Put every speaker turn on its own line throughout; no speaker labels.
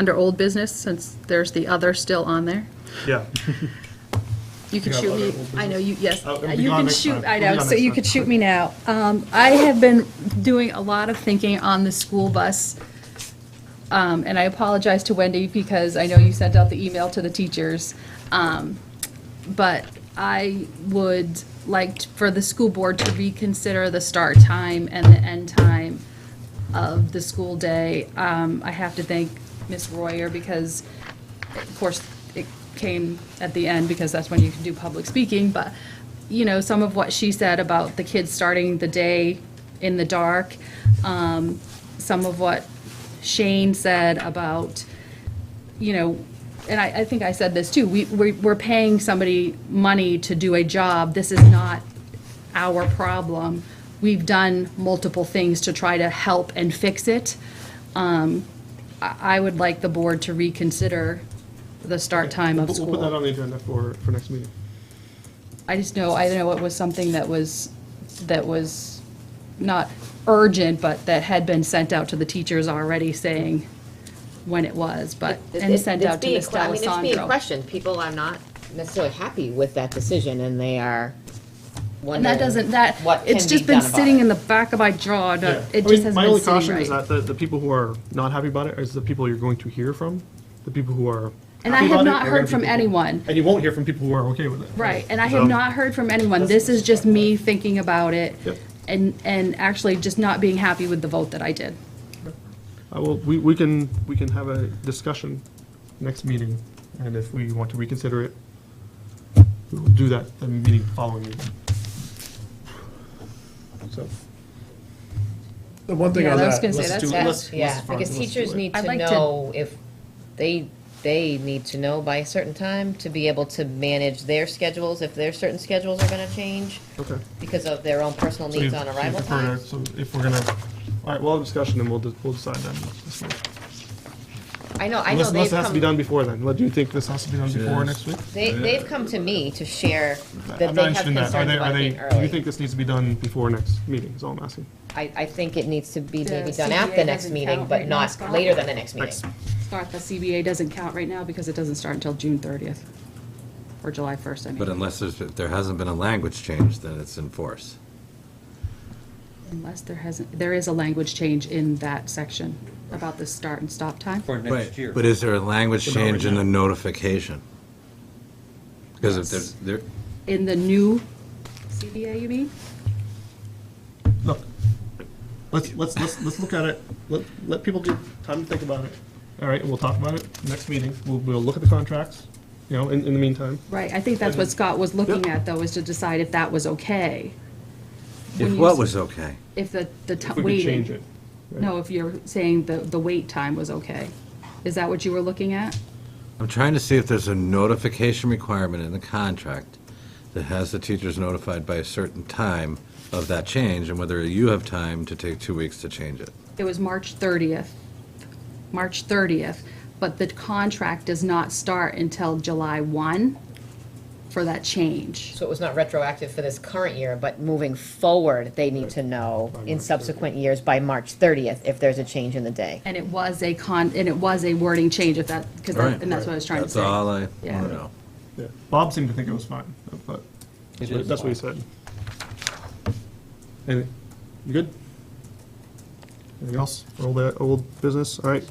under old business, since there's the other still on there.
Yeah.
You can
Yeah,
shoot me,
other old
I know, you, yes,
Oh, it'll be
you
gone
can
next
shoot,
time.
I
It'll be uh,
know,
gone
so
next
you
time.
could shoot me now. Um, I have been doing a lot of thinking on the school bus. Um, and I apologize to Wendy because I know you sent out the email to the teachers. Um, but I would like t- for the school board to reconsider the start time and the end time of the school day. Um, I have to thank Ms. Royer because, of course, it came at the end because that's when you can do public speaking, but, you know, some of what she said about the kids starting the day in the dark, um, some of what Shane said about, you know, and I, I think I said this too, we, we- we're paying somebody money to do a job. This is not our problem. We've done multiple things to try to help and fix it. Um, I, I would like the board to reconsider the start time of
We'll- We'll put that
school.
on the agenda for, for next meeting.
I just know, I know it was something that was, that was not urgent, but that had been sent out to the teachers already saying when it was, but,
It-
and
it-
sent
it's
out to
being
Ms.
que- I mean, It's being
D'Alessandro.
questioned. People are not necessarily happy with that decision, and they are
And that
wondering
doesn't, that,
what
it's
can
just
be
been
done about
sitting
it.
in the back of my jaw, and, uh,
Yeah.
it
I mean,
just hasn't been sitting right.
My only caution is that the, the people who are not happy about it is the people you're going to hear from, the people who are.
And I
happy
have
about it,
not
they're gonna
heard
be
from
people-
anyone.
And you won't hear from people who are okay with it.
Right, and I
So-
have not heard from anyone. This is just me thinking about it
Yep.
and, and actually just not being happy with the vote that I did.
I will, Uh, we, we can, we can have a discussion next meeting, and if we want to reconsider it, we'll do that, the meeting following meeting. So,
The one thing
Yeah,
on
I was
that,
gonna say,
let's
that's
do-
bad.
let's-
Yeah,
let's find-
because
let's do
teachers
it.
need
I'd
to
like to-
know if they, they need to know by a certain time to be able to manage their schedules, if their certain schedules are gonna change
okay.
because of their own personal
So
needs
you-
on
so you
arrival
prefer to-
times.
So if we're gonna, all right, we'll have a discussion, and we'll, de- we'll decide then. this week.
I know, I know
Unless,
they've
unless it has to be done
come,
before then, Well, do you think this has to be done before next week?
they, they've come to me to share that
I'm
they
not
have
interested in that.
concerns
Are they, are
about
they,
being
do you
early.
think this needs to be done before next meeting, is all I'm asking?
I, I think it needs to be
The
maybe done
CBA
at the next
doesn't
meeting,
count
but
right now,
not
Scott.
later than the next
Next,
meeting.
Scott, the CBA doesn't count right now because it doesn't start until June 30th or July 1st, I
But
mean,
unless there's, if there hasn't been a language change, then it's in force.
unless there hasn't, there is a language change in that section about the start and stop time.
For next year.
But is there a language
But not right
change in the notification? Because if there's, there,
In the new CBA, you mean?
look, let's, let's, let's, let's look at it, let, let people get time to think about it. All right, and we'll talk about it next meeting, we'll, we'll look at the contracts, you know, in, in the meantime.
Right, I think that's what Scott was looking
Yep.
at, though, is to decide if that was okay,
if what was okay?
if the, the
If
ti-
we could
waiting.
change it. right?
No, if you're saying the, the wait time was okay. Is that what you were looking at?
I'm trying to see if there's a notification requirement in the contract that has the teachers notified by a certain time of that change, and whether you have time to take two weeks to change it.
It was March 30th, March 30th, but the contract does not start until July 1 for that change.
So it was not retroactive for this current year, but moving forward, they need to know in subsequent years by March 30th if there's a change in the day.
And it was a con, and it was a wording change if that, because,
Right.
and that's what I was trying to
That's
say.
all I want
Yeah.
to know.
Yeah. Bob seemed to think it was fine, but that's
It
what-
is
that's what he said. And, you good? Anything else? All that old business, all right?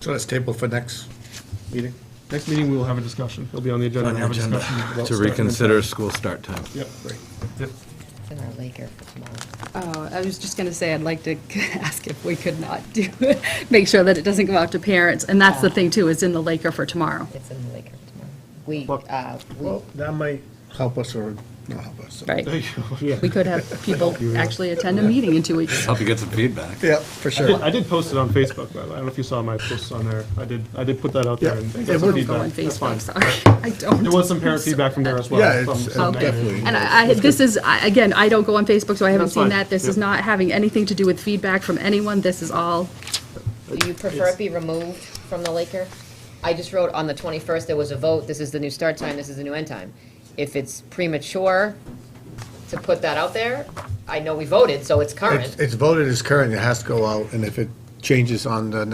so let's table for next meeting.
Next meeting, we will have a discussion. It'll be on the agenda.
On the
We'll have a
agenda.
discussion about
To
starting and-
reconsider school start time.
Yep, right. Yep.
It's in our Laker for tomorrow.
Oh, I was just going to say, I'd like to ask if we could not do, make sure that it doesn't go out to parents. And that's the
Oh.
thing, too, is in the Laker for tomorrow.
It's in the Laker for tomorrow. We,
Well-
uh, we,
Well, that might help us or not help us.
Right.
Yeah.
We could have people actually attend a meeting in two weeks.
Help you get some feedback.
Yeah, for
I did-
sure.
I did post it on Facebook, by the way. I don't know if you saw my posts on there. I did, I did put that out there
Yeah.
and and
Yeah,
got some
we're-
Go on
feedback. That's
Facebook,
fine.
sorry. I don't.
There was some parent feedback from there as well.
Yeah, it's-
some-
it's
some negative.
definitely-
And I, I- this is, I- again, I don't go on Facebook, so I haven't
That's
seen
fine.
that. This is
Yep.
not having anything to do with feedback from anyone. This is all,
do you prefer it be removed from the Laker? I just wrote on the 21st, there was a vote, this is the new start time, this is the new end time. If it's premature to put that out there, I know we voted, so it's current.
It's it's voted as current, it has to go out, and if it changes on the next